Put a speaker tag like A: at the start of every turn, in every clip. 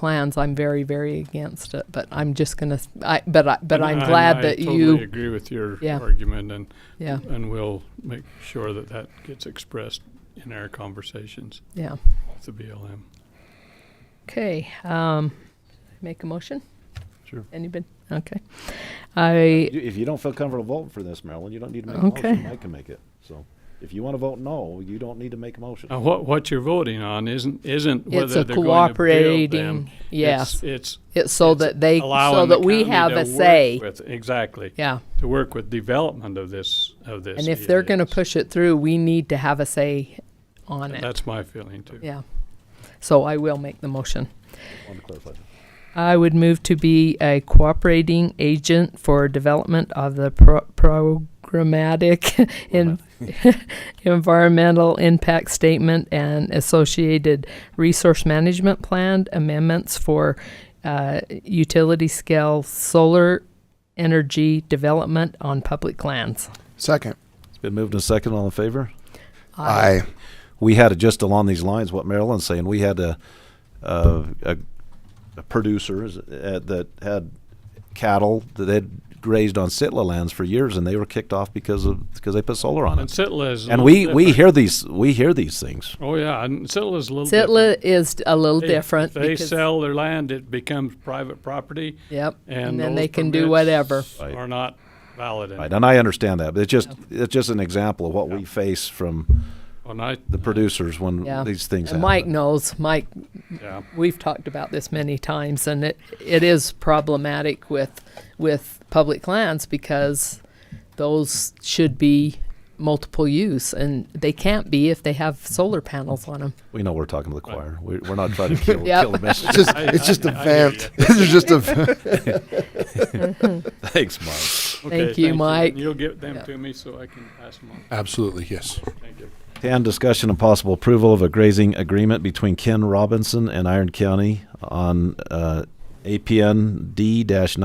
A: clans, I'm very, very against it, but I'm just gonna, s- I, but I, but
B: And
A: I'm
B: I-
A: glad that
B: I totally
A: you,
B: agree with your
A: Yeah.
B: argument, and,
A: yeah,
B: and we'll make sure that that gets expressed in our conversations
A: yeah.
B: with the BLM.
A: Okay, um, make a motion?
B: Sure.
A: Anybody? Okay. I,
C: You- If you don't feel comfortable voting for this, Marilyn, you don't need to make a
A: Okay.
C: motion. I can make it. So if you want to vote no, you don't need to make a motion.
B: Now, what, what you're voting on isn't, isn't
A: it's
B: whether
A: a
B: they're going to build them.
A: cooperating, yes,
B: It's
A: it's so
B: it's
A: that they, so
B: allowing the
A: that we
B: county
A: have
B: to
A: a
B: work
A: say.
B: with- Exactly,
A: Yeah,
B: to work with development of this, of this.
A: and if they're gonna
B: EAS.
A: push it through, we need to have a say on it,
B: That's my feeling too.
A: yeah. So I will make the motion.
C: Wanted to clarify that.
A: I would move to be a cooperating agent for development of the pro- programmatic en- environmental impact statement and associated resource management plan amendments for uh, utility scale solar energy development on public lands.
D: Second.
C: It's been moved and second. All in favor?
D: Aye.
C: we had a- just along these lines what Marilyn's saying. We had a a, a, a producer is- uh, that had cattle that they'd grazed on sitla lands for years, and they were kicked off because of because they put solar on
B: And
C: it.
B: Sitla is. a
C: And
B: little
C: we, we
B: different.
C: hear these we hear these things.
B: Oh, yeah, and Sitla is a little different.
A: Sitla is a little
B: They-
A: different.
B: They
A: because-
B: sell their land, it becomes private property.
A: Yep.
B: And
A: then they
B: those
A: can do
B: permits
A: whatever.
C: Right.
B: Are not valid. anymore.
C: Right, and I understand that, but it's just it's just an example of what we face from
B: And I,
C: the producers when
A: Yeah.
C: these things
A: And
C: happen.
A: Mike knows. Mike
B: yeah,
A: we've talked about this many times and it, it is problematic with with public lands because those should be multiple use and they can't be if they have solar panels on them.
C: we know we're talking to the choir. We, we're not trying to kill,
A: Yep.
C: kill the message.
D: It's just,
B: I-
D: it's just a
B: I- I hear
D: vamp. This is just a. vamp.
C: Thanks, Mike.
B: Okay,
A: Thank you, Mike.
B: And You'll get them
A: Yeah.
B: to me so I can pass them on.
D: Absolutely, yes.
B: Thank you.
C: 10, discussion and possible approval of a grazing agreement between Ken Robinson and Iron County on uh, APN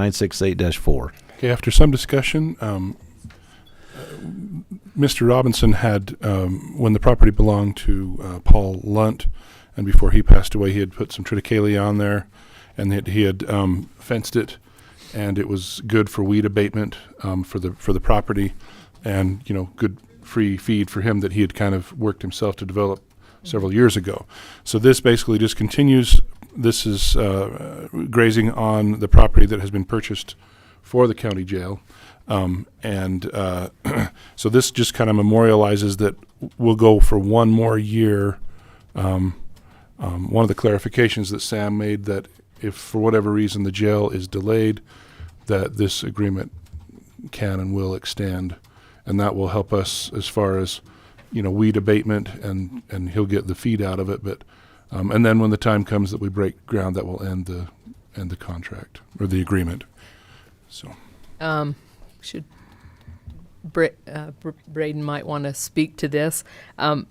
C: D-968-4.
E: Okay, after some discussion, um, uh, Mr. Robinson had, um, when the property belonged to uh, Paul Lunt, and before he passed away, he had put some triticale on there, and that he had um, fenced it, and it was good for weed abatement um, for the for the property, and you know, good free feed for him that he had kind of worked himself to develop several years ago. So this basically just continues. This is uh, uh, grazing on the property that has been purchased for the county jail. Um, and uh, so this just kind of memorializes that we'll go for one more year. Um, um, one of the clarifications that Sam made that if for whatever reason the jail is delayed, that this agreement can and will extend, and that will help us as far as you know weed abatement and and he'll get the feed out of it. But um, and then when the time comes that we break ground, that will end the end the contract or the agreement. So.
A: Um, should Bra- uh, Br- Braden might want to speak to this. Um,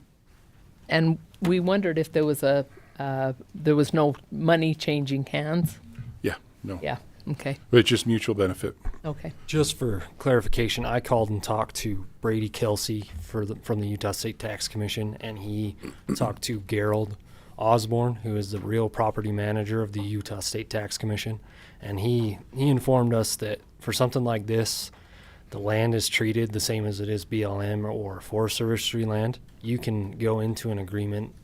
A: and we wondered if there was a uh, there was no money changing hands.
E: Yeah, no.
A: Yeah. Okay.
E: But it's just mutual benefit.
A: Okay.
F: Just for clarification, I called and talked to Brady Kelsey for the, from the Utah State Tax Commission, and he talked to Gerald Osborne, who is the real property manager of the Utah State Tax Commission, and he he informed us that for something like this, the land is treated the same as it is BLM or Forest Service land. You can go into an agreement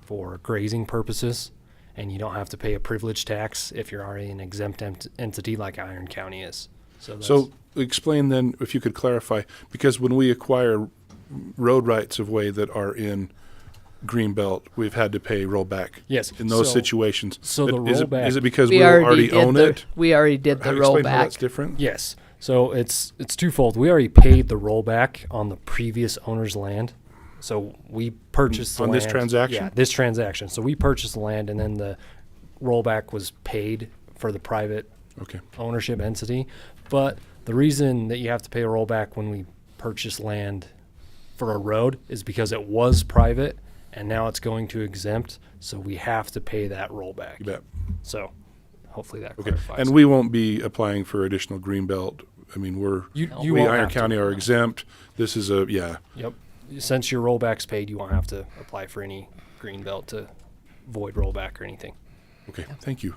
F: for grazing purposes, and you don't have to pay a privilege tax if you're already an exempt ent- entity like Iron County is. So, that's,
E: So explain then, if you could clarify, because when we acquire road rights of way that are in Greenbelt, we've had to pay rollback.
F: Yes,
E: In those
F: so-
E: situations.
F: so the
E: It- is it-
F: rollback-
E: Is it because
A: we
E: we
A: already,
E: already
A: did
E: own
A: the,
E: it?
A: We already did the
E: How- Explain how that's
A: rollback.
E: different?
F: yes. So it's it's twofold. We already paid the rollback on the previous owner's land. So we purchased the
E: On this
F: land-
E: transaction?
F: Yeah, this transaction. So we purchased the land, and then the rollback was paid for the private
E: Okay,
F: ownership entity. But the reason that you have to pay a rollback when we purchase land for a road is because it was private and now it's going to exempt, so we have to pay that rollback.
E: you bet.
F: So hopefully that
E: Okay.
F: clarifies.
E: And we won't be applying for additional Greenbelt. I mean, we're,
F: you, you
E: we,
F: won't
E: Iron
F: have to.
E: County are exempt. This is a, yeah.
F: Yep. Since your rollback's paid, you won't have to apply for any green belt to void rollback or anything.
E: Okay, thank you.